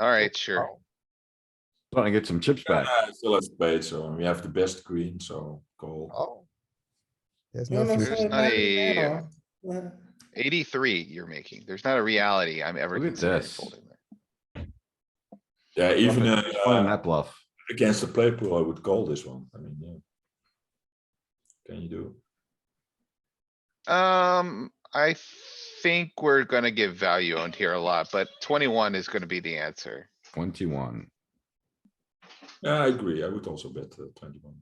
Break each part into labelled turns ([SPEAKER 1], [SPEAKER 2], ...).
[SPEAKER 1] Alright, sure.
[SPEAKER 2] Trying to get some chips back.
[SPEAKER 3] Uh, still have spades, so we have the best queen, so call.
[SPEAKER 1] Oh,
[SPEAKER 4] There's
[SPEAKER 5] No,
[SPEAKER 4] no
[SPEAKER 5] no,
[SPEAKER 4] flush.
[SPEAKER 1] There's
[SPEAKER 5] no,
[SPEAKER 1] not
[SPEAKER 5] not
[SPEAKER 1] a-
[SPEAKER 5] at all. Well,
[SPEAKER 1] 83 you're making. There's not a reality I'm ever
[SPEAKER 2] Look at
[SPEAKER 1] considering
[SPEAKER 2] this.
[SPEAKER 1] folding there.
[SPEAKER 3] Yeah, even uh,
[SPEAKER 2] Just Find that bluff.
[SPEAKER 3] against the play pool, I would call this one. I mean, yeah. Can you do?
[SPEAKER 1] Um, I think we're gonna give value owned here a lot, but twenty-one is gonna be the answer.
[SPEAKER 2] Twenty-one.
[SPEAKER 3] Yeah, I agree. I would also bet uh, twenty-one.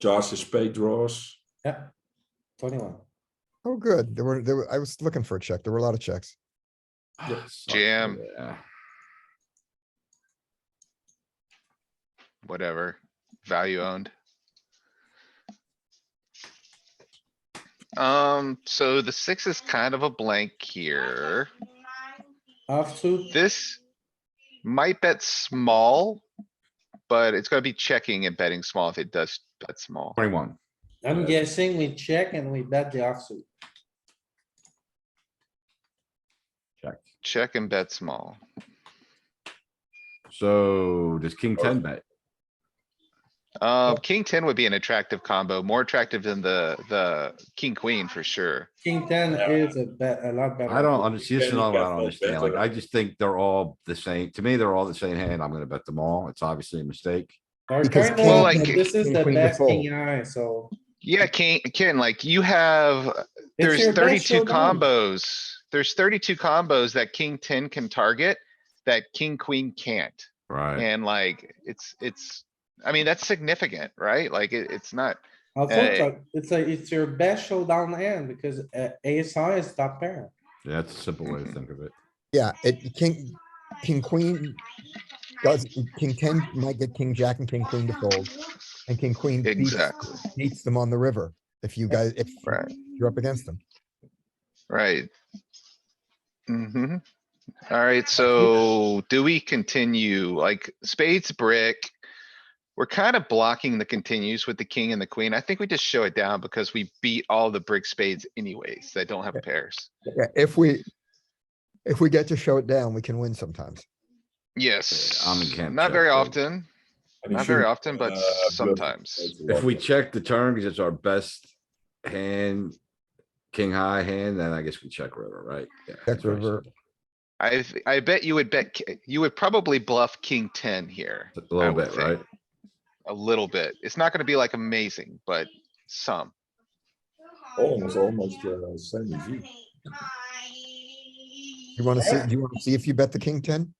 [SPEAKER 3] Charge the spade draws.
[SPEAKER 5] Yeah, twenty-one.
[SPEAKER 4] Oh, good. There were, there were, I was looking for a check. There were a lot of checks.
[SPEAKER 3] Yeah.
[SPEAKER 2] Ah, suck,
[SPEAKER 1] Jam.
[SPEAKER 2] yeah.
[SPEAKER 1] whatever, value owned. Um, so the six is kind of a blank here.
[SPEAKER 5] Offsuit,
[SPEAKER 1] This might bet small, but it's gonna be checking and betting small if it does bet small.
[SPEAKER 2] Twenty-one.
[SPEAKER 5] I'm guessing we check and we bet the offsuit.
[SPEAKER 1] Check and bet small.
[SPEAKER 2] So does king ten bet?
[SPEAKER 1] Uh, king ten would be an attractive combo, more attractive than the, the king queen for sure.
[SPEAKER 5] King ten is a bet, a lot better.
[SPEAKER 2] I don't understand. This is
[SPEAKER 3] Kenny
[SPEAKER 2] not what I
[SPEAKER 3] got
[SPEAKER 2] don't
[SPEAKER 3] no
[SPEAKER 2] understand.
[SPEAKER 3] bet
[SPEAKER 2] Like,
[SPEAKER 3] on
[SPEAKER 2] I
[SPEAKER 3] it.
[SPEAKER 2] just think they're all the same. To me, they're all the same hand. I'm gonna bet them all. It's obviously a mistake.
[SPEAKER 5] Our
[SPEAKER 4] Because
[SPEAKER 5] turn
[SPEAKER 1] king-
[SPEAKER 5] was
[SPEAKER 1] Well, like,
[SPEAKER 5] that This is
[SPEAKER 4] king,
[SPEAKER 5] the
[SPEAKER 4] queen to
[SPEAKER 5] best
[SPEAKER 4] fold.
[SPEAKER 5] king eye, so.
[SPEAKER 1] Yeah, king, Ken, like you have
[SPEAKER 5] it's
[SPEAKER 1] There's
[SPEAKER 5] your best
[SPEAKER 1] thirty-two
[SPEAKER 5] showdown.
[SPEAKER 1] combos. There's thirty-two combos that king ten can target, that king queen can't.
[SPEAKER 2] Right.
[SPEAKER 1] And like, it's, it's, I mean, that's significant, right? Like, it, it's not,
[SPEAKER 5] Also, it's
[SPEAKER 1] Hey.
[SPEAKER 5] like- it's a, it's your best showdown hand because uh, ace high is top pair.
[SPEAKER 2] Yeah, that's a simple way to think of it.
[SPEAKER 4] Yeah, it, king, king, queen does, king ten might get king, jack and king, queen to fold. And king, queen beats,
[SPEAKER 1] Exactly.
[SPEAKER 4] beats them on the river. If you guys, if
[SPEAKER 1] right,
[SPEAKER 4] you're up against them.
[SPEAKER 1] right. Mm-hmm. Alright, so do we continue? Like spades, brick. We're kind of blocking the continues with the king and the queen. I think we just show it down because we beat all the brick spades anyways that don't have pairs.
[SPEAKER 4] Yeah, if we, if we get to show it down, we can win sometimes.
[SPEAKER 1] Yes,
[SPEAKER 2] I'm in camp
[SPEAKER 1] not
[SPEAKER 2] Jack,
[SPEAKER 1] very
[SPEAKER 2] so-
[SPEAKER 1] often.
[SPEAKER 3] And you
[SPEAKER 1] Not very
[SPEAKER 3] should,
[SPEAKER 1] often, but
[SPEAKER 3] uh, bluff
[SPEAKER 1] sometimes.
[SPEAKER 3] spades a lot,
[SPEAKER 2] If we
[SPEAKER 3] but-
[SPEAKER 2] check the turn, because it's our best hand, king high hand, then I guess we check river, right? Yeah, it's very
[SPEAKER 4] river.
[SPEAKER 2] simple.
[SPEAKER 1] I, th- I bet you would bet, ki- you would probably bluff king ten here
[SPEAKER 2] A little
[SPEAKER 1] would
[SPEAKER 2] bit,
[SPEAKER 1] think.
[SPEAKER 2] right?
[SPEAKER 1] a little bit. It's not gonna be like amazing, but some.
[SPEAKER 3] Almost, almost, uh, same as you.
[SPEAKER 4] You wanna see, do you wanna see if you bet the king ten?